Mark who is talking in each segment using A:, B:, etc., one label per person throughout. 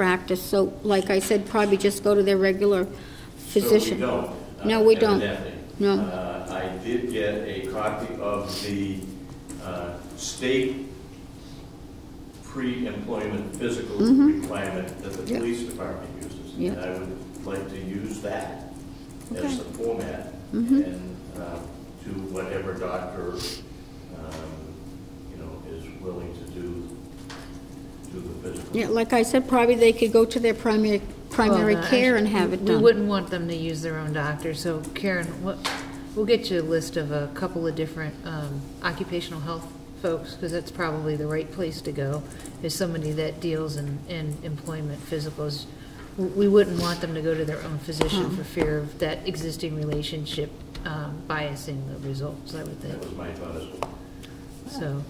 A: practice, so like I said, probably just go to their regular physician.
B: So we don't. uh,
A: No, we don't.
B: evidently.
A: No.
B: Uh, I did get a copy of the uh, state pre-employment physical requirement that the
A: Mm-hmm. Yeah.
B: police department uses.
A: Yeah.
B: And I would like to use that as
A: Okay. Mm-hmm.
B: the format and uh, to whatever doctor, um, you know, is willing to do, do the physical.
A: Yeah, like I said, probably they could go to their primary, primary
C: Well, no,
A: care and
C: actually,
A: have it
C: We
A: done.
C: wouldn't want them to use their own doctor, so Karen, what, we'll get you a list of a couple of different um, occupational health folks, because that's probably the right place to go, is somebody that deals in, in employment physicals. W- We wouldn't want them to go to their own physician for fear of that existing relationship um, biasing the results, I would
B: That
C: think,
B: was my thought as well.
C: so.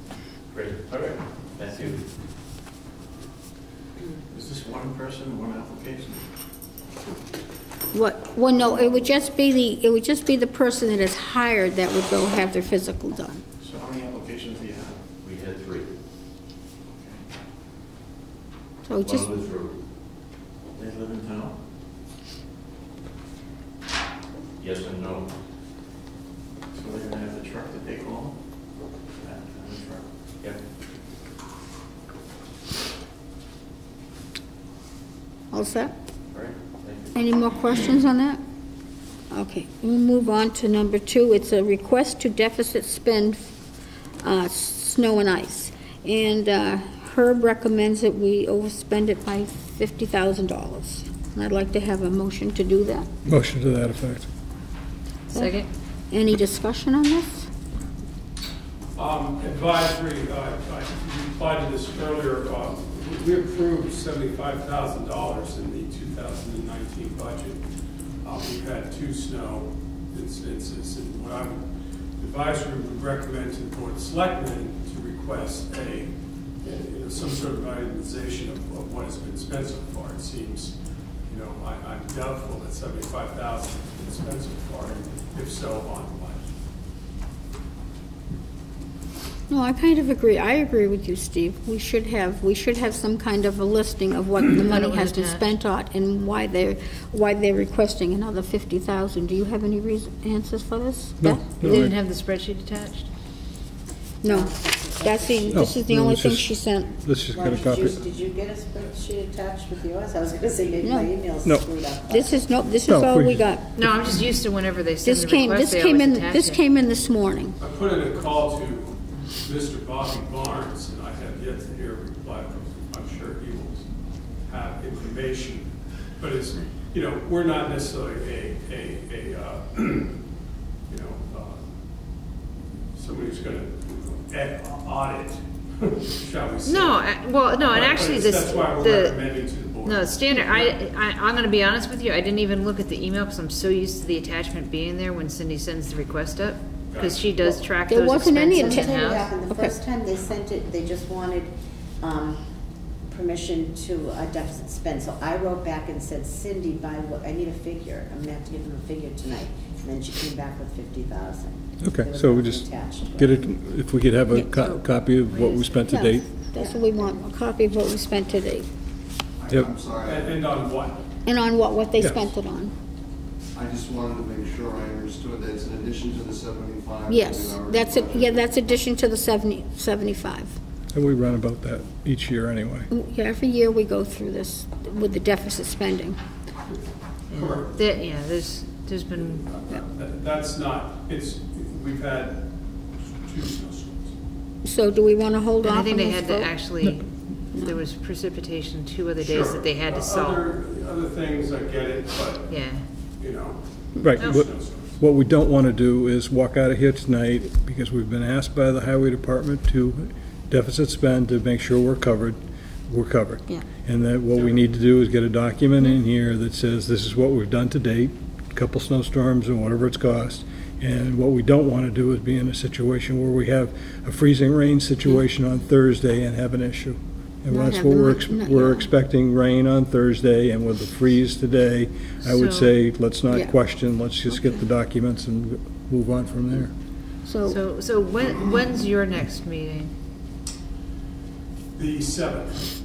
B: Great, all right, thank you.
D: Is this one person, one application?
A: What, well, no, it would just be the, it would just be the person that is hired that would go have their physical done.
D: So how many applications do you have?
B: We had three.
A: So just,
B: One withdrew.
D: They live in town?
B: Yes and no.
D: So they're gonna have the truck that they call? That kind of truck.
B: Yep.
A: all set?
B: All right, thank you.
A: Any more questions on that? Okay, we'll move on to number two. It's a request to deficit spend uh, snow and ice. And uh, Herb recommends that we overspend it by $50,000. And I'd like to have a motion to do that.
E: Motion to that effect.
C: Second?
A: Any discussion on this?
F: Um, Advisory, uh, I replied to this earlier, uh, we approved seventy-five thousand dollars in the two thousand and nineteen budget. Uh, We've had two snow instances, and what I would, advisory would recommend to the board of selectmen to request a, you know, some sort of itemization of of what has been spent so far. It seems, you know, I- I'm doubtful that seventy-five thousand has been spent so far, if so, on what?
A: No, I kind of agree. I agree with you, Steve. We should have, we should have some kind of a listing of what the money
C: it was
A: has been
C: attached.
A: spent on and why they're, why they're requesting another 50,000. Do you have any reason, answers for this?
E: No,
A: Beth?
C: You
E: no,
C: didn't
E: I-
C: have the spreadsheet attached?
A: No, that's the, this is the
E: No,
A: only
E: it's
A: thing
E: just-
A: she sent.
E: let's just
G: Well,
E: get a
G: did you-
E: copy.
G: Did you get a spreadsheet attached with yours? I was gonna say, maybe my
A: No.
G: email's
E: No.
G: screwed up.
A: This is, no, this is
E: No,
A: all
E: we
A: we got.
E: just-
C: No, I'm just used to whenever they send
A: This
C: the
A: came,
C: request,
A: this
C: they
A: came
C: always
A: in,
C: attach
A: this
C: it.
A: came in this morning.
F: I put in a call to Mr. Bobby Barnes, and I have yet to hear a reply from him. I'm sure he will have information, but it's, you know, we're not necessarily a, a, a, uh, you know, uh, somebody who's gonna ed- audit, shall we say.
C: No, I- well, no, and
F: But
C: actually,
F: it's-
C: this,
F: That's why we're
C: the,
F: recommending to the board.
C: no, standard, I, I, I'm gonna be honest with you, I didn't even look at the email, because I'm so used to the attachment being there when Cindy sends the request up, because she does track
A: There
C: those
A: wasn't any
C: expenses
A: atta-
G: Something that
C: in-house.
G: happened, the
A: Okay.
G: first time they sent it, they just wanted, um, permission to uh, deficit spend. So I wrote back and said, Cindy, by what, I need a figure, I'm gonna have to give them a figure tonight. And then she came back with fifty thousand.
E: Okay, so we just get it, if we could have a co- copy of what we spent to
A: Yeah,
E: date.
A: That's what we want, a copy of what we spent today,
H: I-
E: Yep.
H: I'm
F: And
H: sorry,
F: and on what?
A: and on what, what they
E: Yes.
A: spent it on.
H: I just wanted to make sure I understood that it's in addition to the 75. that we
A: Yes,
H: already
A: that's, it. yeah,
H: budgeted.
A: that's addition to the 70, 75.
E: And we run about that each year anyway.
A: Yeah, every year we go through this with the deficit spending.
F: Correct.
C: That- yeah, there's, there's been,
F: That- That's not, it's, we've had two snowstorms.
A: So do we want to hold
C: and
A: off
C: I
A: on
C: think they
A: this
C: had to
A: vote?
C: actually, there was precipitation two other days
F: Sure.
C: that they had to
F: Uh,
C: solve,
F: Other, other things, I get it, but,
C: yeah.
F: you know.
E: Right,
F: there's
E: what-
F: no sense.
E: What we don't want to do is walk out of here tonight, because we've been asked by the highway department to deficit spend to make sure we're covered, we're covered.
A: Yeah.
E: And that what we need to do is get a document in here that says this is what we've done to date, a couple snowstorms and whatever it's cost. And what we don't want to do is be in a situation where we have a freezing rain situation on Thursday and have an issue. And
A: Not
E: that's
A: have
E: what
A: the
E: we're,
A: mon-
E: ex-
A: not-
E: we're
A: yeah.
E: expecting rain on Thursday and with the freeze today, I would
C: So-
E: say, let's
A: Yeah.
E: not question, let's just get the documents and move on from there.
A: So,
C: So, so when, when's your next meeting?
F: The seventh,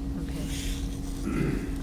C: Okay.